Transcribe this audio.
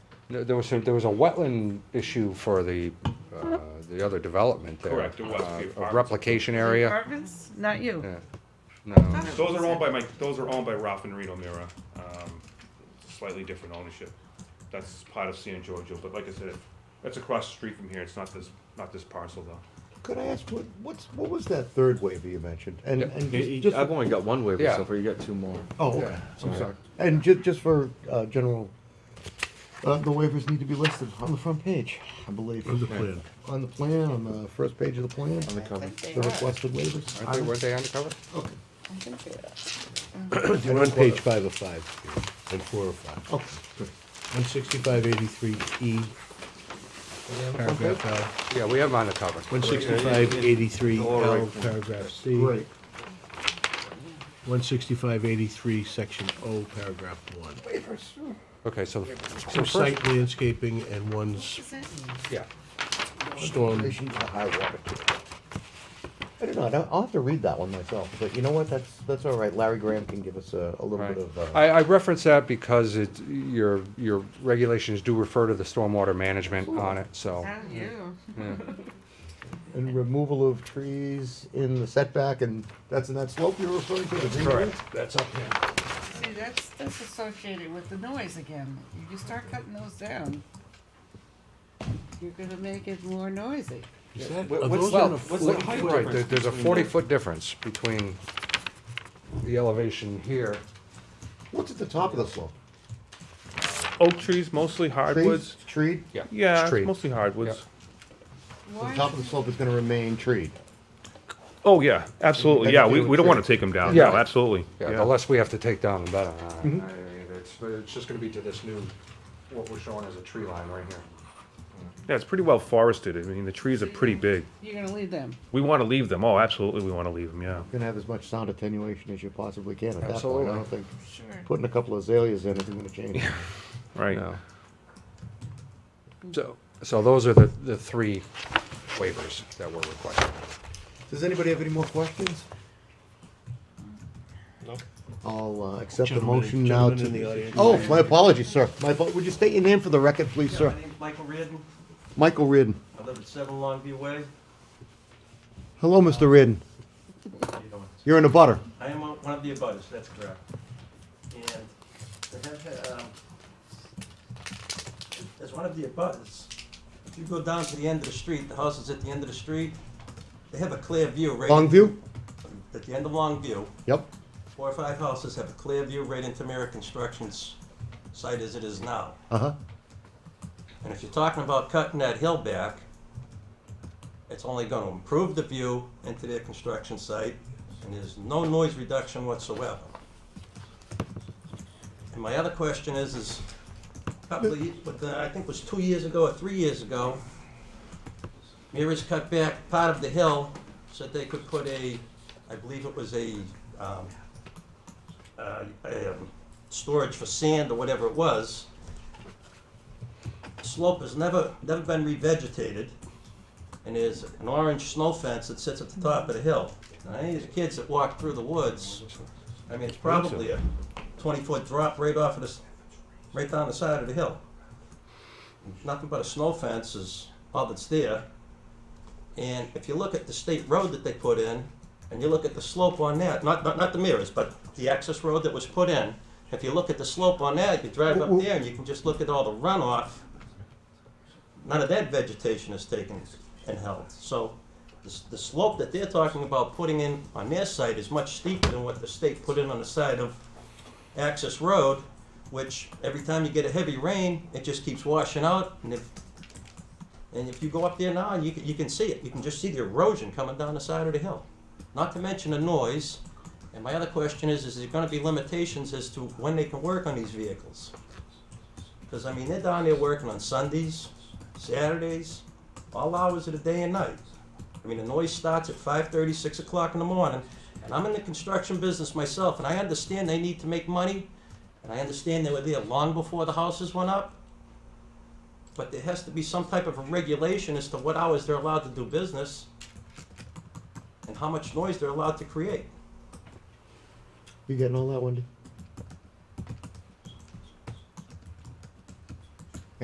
No, There was, some- there was a wetland issue for the, uh, the other development there. Correct, it was the uh, a apartments. Replication area. Apartments, not you. Yeah. No, Thought it Those are was- owned by my, those are owned by Ralph and Reno Mira, um, slightly different ownership. That's part of San Giorgio, but like I said, that's across the street from here, it's not this, not this parcel though. Could I ask, what, what's, what was that third waiver you mentioned? And, and You- just- you- just, I've only got one waiver Yeah. so far, you got two more. oh, okay, Yeah. I'm sorry. And ju- just for, uh, general, uh, the waivers need to be listed on the front page, I believe. On the plan. On the plan, on the first page of the plan, On the cover. the requested waivers. aren't they, weren't they undercover? They're on page five of five and four of five. Okay, One sixty-five eighty-three E, paragraph L. Yeah, we have them undercover. One sixty-five eighty-three L, paragraph C. great. One sixty-five eighty-three, section O, paragraph one. Okay, so, Some site landscaping and one's Is it? yeah. storm. Relation to high water table. I don't know, I don't- I'll have to read that one myself, but you know what, that's, that's all right, Larry Graham can give us a, a little bit of, Right. uh, I, I reference that because it, your, your regulations do refer to the stormwater management on it, so. Not you. and removal of trees in the setback, and that's in that slope you're referring to? the green area? That's up here. See, that's, that's associated with the noise again. If you start cutting those down, you're gonna make it more noisy. Are those those on on Well, a the- what's look, the height right, there- difference? there's a between forty-foot difference between the elevation here. What's at the top of the slope? Oak trees, mostly hardwoods? Trees? Treed? Yeah. Yeah, It's tree. it's mostly hardwoods. The Why, top of the slope is gonna remain treed. Oh, yeah, absolutely, yeah, we, we don't wanna take them down, no, Yeah. absolutely, Yeah, Mm-hmm. the yeah. less we have to take down, the better. I- I mean, It's, it's just gonna be to this new, what we're showing as a tree line right here. Yeah, it's pretty well forested, I mean, the trees are pretty big. you're gonna leave them? We wanna leave them, oh, absolutely, we wanna leave them, yeah. Gonna have as much sound attenuation as you possibly can at that point, Absolutely. I don't think, Sure. putting a couple of azaleas in isn't gonna change. Right. So, so those are the, the three waivers that were requested. Does anybody have any more questions? No. I'll uh, accept the Gentleman- motion now gentleman in the to. audience. Oh, my apologies, sir. My, apo- would you state your name for the record, please, Yeah, sir? my name's Michael Reardon. Michael Reardon. I live at Seven Longview Way. Hello, Mr. Reardon. How you doing? You're in a butter. I am one one of the abutters, that's correct. And I have, had, um, as one of the abutters, if you go down to the end of the street, the house is at the end of the street, they have a clear view right. Longview? At the end of Longview, Yep. four or five houses have a clear view right into Mira Construction's site as it is now. Uh-huh. And if you're talking about cutting that hill back, it's only gonna improve the view into their construction site, and there's no noise reduction whatsoever. And my other question is, is probably, but uh, I think it was two years ago or three years ago, Mira's cut back part of the hill so that they could put a, I believe it was a, um, uh, a, um, storage for sand or whatever it was slope has never, never been revegetated, and there's an orange snow fence that sits at the top of the hill. Now, any of the kids that walk through the woods, I mean, it's probably a twenty-foot drop right off of this, right down the side of the hill. Nothing but a snow fence is all that's there. And if you look at the state road that they put in, and you look at the slope on that, not, not, not the mirrors, but the access road that was put in, if you look at the slope on that, you drive up there and you can just look at all the runoff none of that vegetation is taken and held. So the, s- the slope that they're talking about putting in on their site is much steeper than what the state put in on the side of Access Road, which every time you get a heavy rain, it just keeps washing out. And if, and if you go up there now, you can, you can see it. You can just see the erosion coming down the side of the hill. Not to mention the noise. And my other question is, is there gonna be limitations as to when they can work on these vehicles? Because, I mean, they're down there working on Sundays, Saturdays, all hours of the day and night. I mean, the noise starts at 5:30, 6 o'clock in the morning, and I'm in the construction business myself, and I understand they need to make money, and I understand they were there long before the houses went up, but there has to be some type of a regulation as to what hours they're allowed to do business and how much noise they're allowed to create. You getting all that, Wendy?